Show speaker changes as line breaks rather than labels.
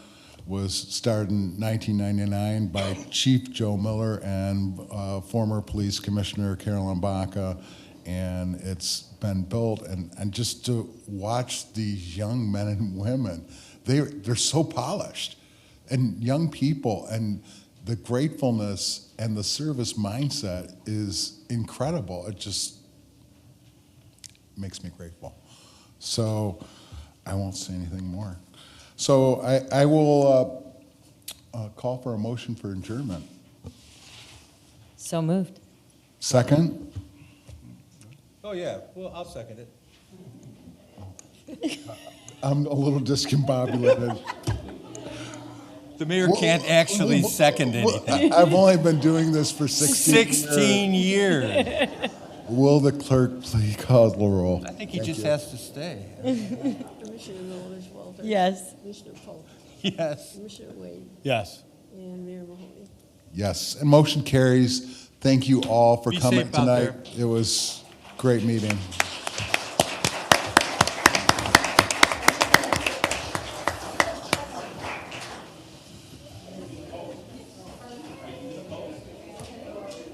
was started in 1999 by Chief Joe Miller and uh, former Police Commissioner Carolyn Baca. And it's been built, and, and just to watch these young men and women, they, they're so polished and young people and the gratefulness and the service mindset is incredible. It just makes me grateful. So I won't say anything more. So I, I will uh, uh, call for a motion for adjournment.
So moved.
Second?
Oh, yeah, well, I'll second it.
I'm a little discombobulated.
The mayor can't actually second
Well,
anything.
I- I've only been doing this for 16 years.
16 years.
Will the clerk please call the roll?
I think he just has to stay.
Commissioner Milovich Walters.
Yes.
Commissioner Polk.
Yes.
Commissioner Wade.
Yes.
And Mayor Mahoney.
Yes, and motion carries. Thank you all for
Be
coming
safe out
tonight. It was great meeting.